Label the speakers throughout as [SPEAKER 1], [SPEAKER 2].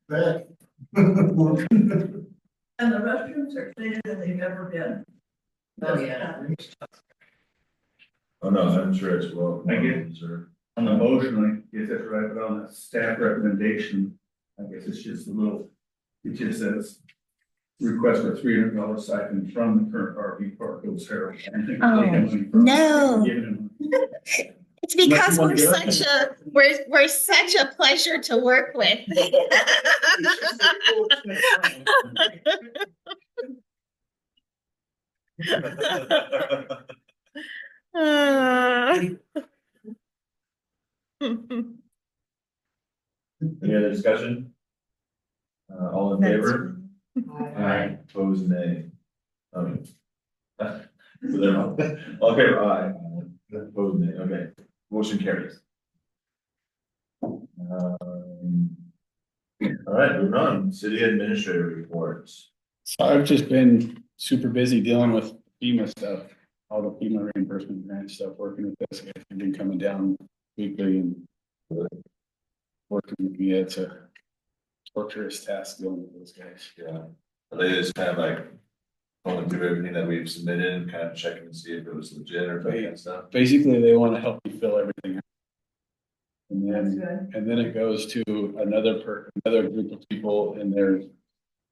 [SPEAKER 1] back.
[SPEAKER 2] And the restrooms are cleaner than they've ever been.
[SPEAKER 3] Oh, yeah.
[SPEAKER 1] Oh, no, I'm sure it's well.
[SPEAKER 4] Thank you.
[SPEAKER 1] Sir.
[SPEAKER 4] On the motion, I guess that's right, but on the staff recommendation, I guess it's just a little, it just says. Request for three hundred dollar stipend from the current RV park, it was Harold.
[SPEAKER 5] Oh, no. It's
[SPEAKER 4] Unless
[SPEAKER 5] because
[SPEAKER 4] you
[SPEAKER 5] we're
[SPEAKER 4] wanna do it.
[SPEAKER 5] such a, we're, we're such a pleasure to work with. Uh.
[SPEAKER 1] Any other discussion? Uh, all in favor? Aye. Opposed, nay. Um. so they're all- All in favor, aye. Opposed, nay, okay, motion carries. Um. All right, moving on, city administrator reports.
[SPEAKER 6] I've just been super busy dealing with FEMA stuff, all the FEMA reimbursement grant stuff, working with this, I've been coming down weekly and. Working with me, it's a torturous task dealing with those guys.
[SPEAKER 1] Yeah, they just kind of like going through everything that we've submitted and kind of checking to see if it was legit or that kind of stuff.
[SPEAKER 6] Basically, they want to help you fill everything out. And
[SPEAKER 2] That's
[SPEAKER 6] then,
[SPEAKER 2] good.
[SPEAKER 6] and then it goes to another per, another group of people in their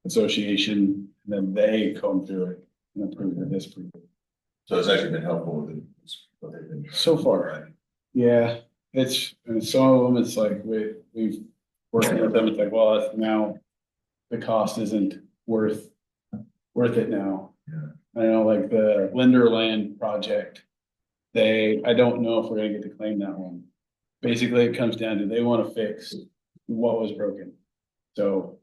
[SPEAKER 6] association, and then they comb through it and approve or disapprove. it.
[SPEAKER 1] So it's actually been helpful with what they've been.
[SPEAKER 6] So far, Yeah, it's, and some of them, it's like, we, we've working with them, it's like, well, it's now the cost isn't worth, worth it now.
[SPEAKER 1] Yeah.
[SPEAKER 6] I know, like the Linderland project, they, I don't know if we're gonna get to claim that one. Basically, it comes down to they wanna fix what was broken. So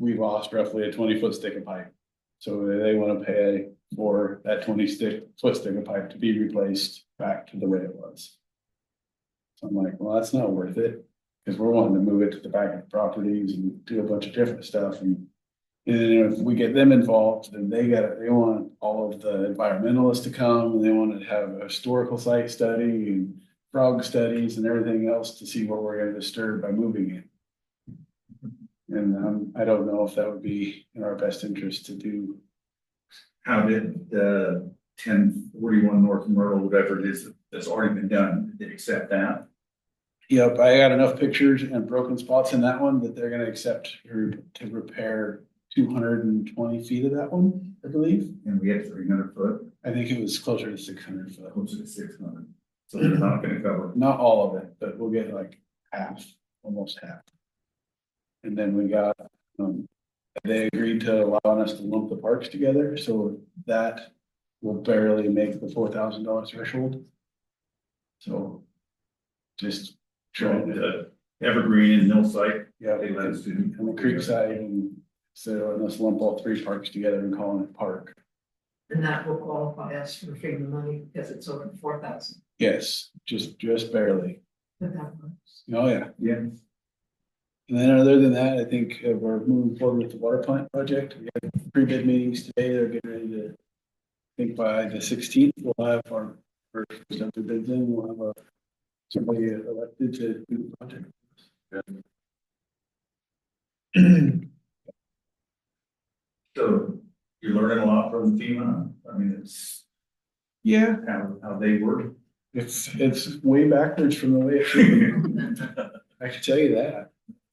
[SPEAKER 6] we lost roughly a twenty foot stick of pipe. So they wanna pay for that twenty stick, foot stick of pipe to be replaced back to the way it was. So I'm like, well, that's not worth it, because we're wanting to move it to the back of the properties and do a bunch of different stuff and. And then if we get them involved, then they got, they want all of the environmentalists to come, and they want to have a historical site study and. Frog studies and everything else to see what we're gonna disturb by moving it. And um, I don't know if that would be in our best interest to do.
[SPEAKER 4] How did the uh, ten forty-one North Myrtle, whatever it is, that's already been done, did they accept that?
[SPEAKER 6] Yep, I got enough pictures and broken spots in that one that they're gonna accept her to repair two hundred and twenty feet of that one, I believe.
[SPEAKER 4] And we had three hundred foot,
[SPEAKER 6] I think it was closer to six hundred foot.
[SPEAKER 4] closer to six hundred, so they're not gonna cover.
[SPEAKER 6] Not all of it, but we'll get like half, almost half. And then we got, um, they agreed to allowing us to lump the parks together, so that will barely make the four thousand dollar threshold. So just trying to,
[SPEAKER 4] The Evergreen and Millsite,
[SPEAKER 6] yeah.
[SPEAKER 4] they let us do.
[SPEAKER 6] And the Creekside and so let's lump all three parks together and call it a park.
[SPEAKER 3] And that will qualify us for FEMA money because it's over four thousand.
[SPEAKER 6] Yes, just, just barely.
[SPEAKER 3] But that works.
[SPEAKER 6] Oh, yeah.
[SPEAKER 4] Yeah.
[SPEAKER 6] And then other than that, I think uh, we're moving forward with the water plant project. We had pre-bid meetings today. They're getting ready to. I think by the sixteenth, we'll have our first subject bids in. We'll have a- somebody elected to do the project.
[SPEAKER 4] So you're learning a lot from FEMA, I mean, it's
[SPEAKER 6] Yeah,
[SPEAKER 4] how, how they work.
[SPEAKER 6] it's, it's way backwards from the way it should be. I can tell you that.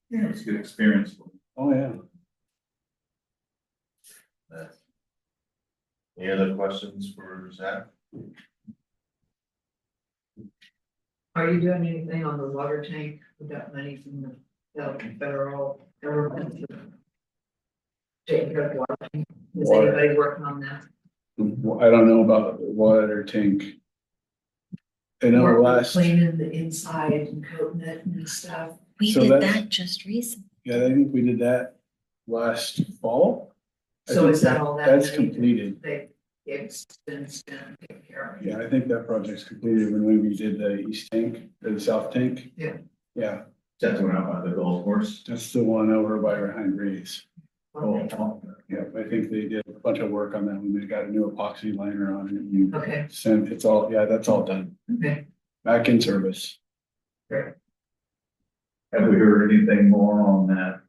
[SPEAKER 4] Yeah, it's a good experience. for them.
[SPEAKER 6] Oh, yeah.
[SPEAKER 1] Any other questions for Zach?
[SPEAKER 3] Are you doing anything on the water tank with that money from the uh, federal government? to Take care of water. tank? Is
[SPEAKER 6] Water.
[SPEAKER 3] anybody working on that?
[SPEAKER 6] I don't know about the water tank. I know
[SPEAKER 3] Working on
[SPEAKER 6] last, yeah,
[SPEAKER 3] Cleaning the inside and coating it and stuff.
[SPEAKER 5] We
[SPEAKER 6] So
[SPEAKER 5] did
[SPEAKER 6] that's-
[SPEAKER 5] that just recently.
[SPEAKER 6] I think we did that last fall. I
[SPEAKER 3] So
[SPEAKER 6] think
[SPEAKER 3] is that all that?
[SPEAKER 6] That's
[SPEAKER 3] they-
[SPEAKER 6] completed.
[SPEAKER 3] They, it's been, it's been taken care of.
[SPEAKER 6] Yeah, I think that project's completed when we did the east tank or the south tank.
[SPEAKER 3] Yeah.
[SPEAKER 6] Yeah,
[SPEAKER 4] That's one out by the golf course.
[SPEAKER 6] that's the one over by behind Ray's.
[SPEAKER 4] Oh,
[SPEAKER 6] Yeah, I think they did a bunch of work on that one. They got a new epoxy liner on it and
[SPEAKER 3] Okay,
[SPEAKER 6] sent, it's all, yeah, that's all done.
[SPEAKER 3] okay.
[SPEAKER 6] Back in service.
[SPEAKER 4] Have we heard anything more on that
[SPEAKER 1] uh,